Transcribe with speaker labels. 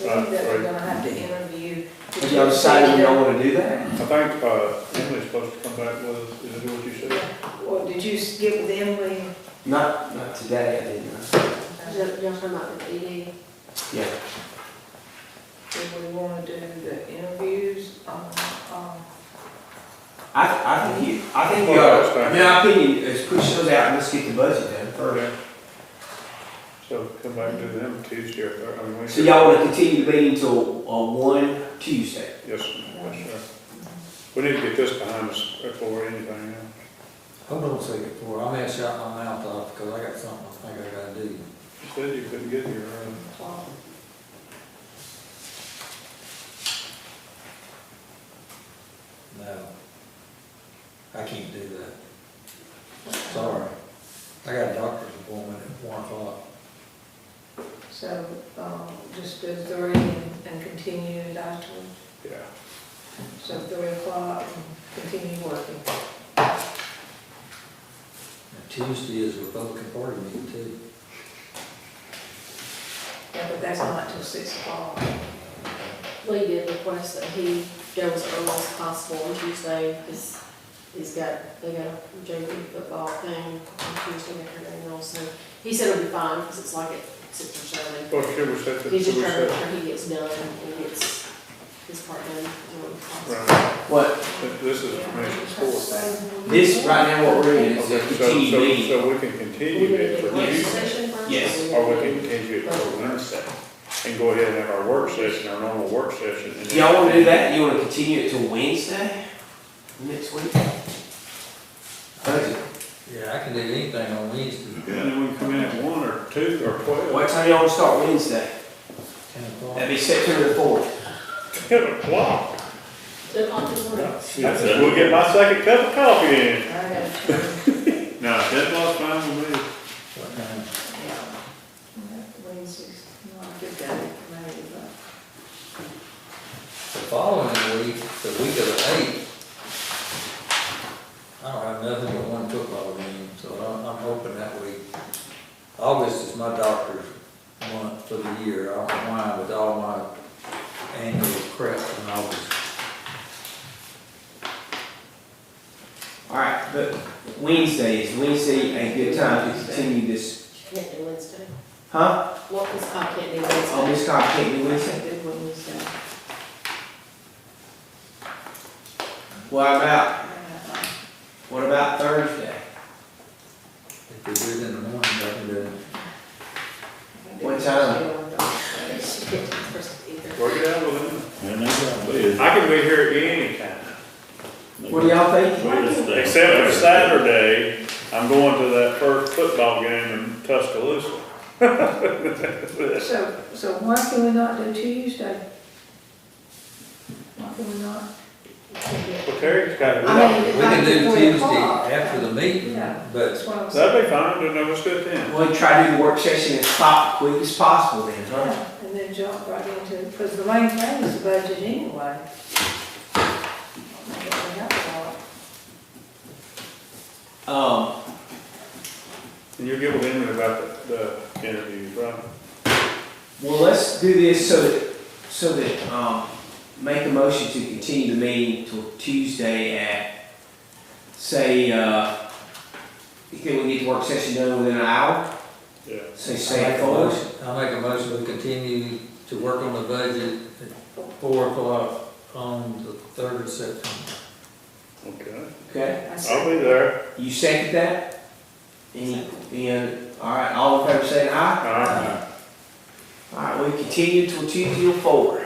Speaker 1: Right,
Speaker 2: think that we're
Speaker 1: right.
Speaker 2: gonna have to interview.
Speaker 3: Have y'all decided you don't wanna do
Speaker 1: I
Speaker 3: that?
Speaker 1: think, uh, Emily's supposed to come back with, us. is it what you said?
Speaker 2: Or did you s- get with Emily?
Speaker 3: Not, not today, I did not.
Speaker 2: Uh,
Speaker 4: Y'all y'all talking about the E. DD?
Speaker 3: Yeah.
Speaker 2: If we wanna do the interviews, um, um,
Speaker 3: I, I think you, I think you ought, to- in my opinion, is push those out and let's get the budget done first.
Speaker 1: Okay. So come back to them Tuesday or, Thur- I mean, Wednesday.
Speaker 3: So y'all wanna continue the meeting till, uh, one Tuesday?
Speaker 1: Yes, yes, sir. We need to get this behind us before anything else.
Speaker 5: Hold on a second, before I mess out my mouth off, because I got something I think I gotta do.
Speaker 1: You said you couldn't get here, uh,
Speaker 2: um,
Speaker 5: No. I can't do that, sorry. I got a doctor's appointment at one o'clock.
Speaker 2: So, um, just do three and and continue it afterwards.
Speaker 1: yeah.
Speaker 2: So three o'clock and continue working.
Speaker 5: And Tuesday is Republican Party meeting too.
Speaker 2: Yeah, but that's not till six o'clock.
Speaker 4: We did request that he goes early as possible on Tuesday, because he's got, they got a JV football thing on Tuesday afternoon also. He said it'll be fine, because it's like at six or seven.
Speaker 1: Well, should we set the, should we
Speaker 4: He's just trying to make
Speaker 1: set?
Speaker 4: sure he gets done and gets his part done. as early as possible.
Speaker 1: Right,
Speaker 3: What,
Speaker 1: Th- this is commission's court.
Speaker 3: this, right now what we're in is a
Speaker 1: Okay, so,
Speaker 3: continued
Speaker 1: so,
Speaker 3: meeting.
Speaker 1: so we can
Speaker 4: We
Speaker 1: continue
Speaker 4: need
Speaker 1: it
Speaker 4: to
Speaker 1: for
Speaker 4: do a work
Speaker 1: Tuesday,
Speaker 4: session first.
Speaker 3: Yes.
Speaker 1: or we can continue it for Wednesday. And go ahead and have our work session, our normal work session. and then-
Speaker 3: Y'all wanna do that? You wanna continue it till Wednesday? Next week? Budget.
Speaker 5: Yeah, I can do anything on Wednesday,
Speaker 1: Yeah, and then we can come in at one or two or twelve.
Speaker 3: What time y'all wanna start Wednesday?
Speaker 5: ten o'clock.
Speaker 3: That'd be September the fourth.
Speaker 1: Ten o'clock.
Speaker 4: Two o'clock in the morning.
Speaker 1: That's it. We'll get my second cup of coffee in.
Speaker 2: I have to,
Speaker 1: No, ten o'clock's fine with me.
Speaker 5: What time?
Speaker 2: yeah. Wednesday's not a good day, maybe, but.
Speaker 5: The following week, the week of the eighth, I don't have nothing but one football game, so I'm, I'm hoping that week. August is my doctor's month for the year, I don't know why, with all my annual crap in August.
Speaker 3: Alright, but Wednesday, is Wednesday a good time to continue this?
Speaker 4: Can't do Wednesday.
Speaker 3: Huh?
Speaker 4: Well, this I can't do
Speaker 3: Oh,
Speaker 4: Wednesday.
Speaker 3: Miss Cobb can't do Wednesday?
Speaker 4: Can't do Wednesday.
Speaker 3: What about,
Speaker 2: uh,
Speaker 3: what about Thursday?
Speaker 5: If we do it in the morning, I can do it.
Speaker 3: What time?
Speaker 4: She can't do Thursday either.
Speaker 1: Work it out with
Speaker 6: And that's how it
Speaker 1: them.
Speaker 6: is.
Speaker 1: I can be here any time,
Speaker 3: What do y'all think?
Speaker 6: Wednesday.
Speaker 1: except for Saturday, I'm going to that first football game in Tuscaloosa.
Speaker 2: So, so why can we not do Tuesday? Why can we not?
Speaker 1: Well, Terry's got it.
Speaker 2: I mean,
Speaker 5: We can do
Speaker 2: after three
Speaker 5: Tuesday
Speaker 2: o'clock.
Speaker 5: after the meeting,
Speaker 2: Yeah.
Speaker 5: but
Speaker 2: That's what I'm saying.
Speaker 1: That'd be fine, then that was good then.
Speaker 3: Well, try to do the work session as pop, quick as possible then, huh?
Speaker 2: Yeah, And then jump right into, because the main thing is the budget anyway. We have
Speaker 3: Um,
Speaker 1: And you'll get with him about the, the interviews, right?
Speaker 3: well, let's do this so that, so that, um, make a motion to continue the meeting till Tuesday at, say, uh, you think we get the work session done within an hour?
Speaker 1: Yeah.
Speaker 3: Say,
Speaker 5: I
Speaker 3: say
Speaker 5: make
Speaker 3: it
Speaker 5: a
Speaker 3: forward?
Speaker 5: motion, I make a motion, we continue to work on the budget at four o'clock on the third of September.
Speaker 1: Okay,
Speaker 3: Okay,
Speaker 2: a lot. I
Speaker 1: I'll
Speaker 2: said,
Speaker 1: be there.
Speaker 3: you second that? Any, any, all right, all in favor say aye?
Speaker 2: Uh-huh.
Speaker 1: All right.
Speaker 3: All right, we continue till Tuesday at four.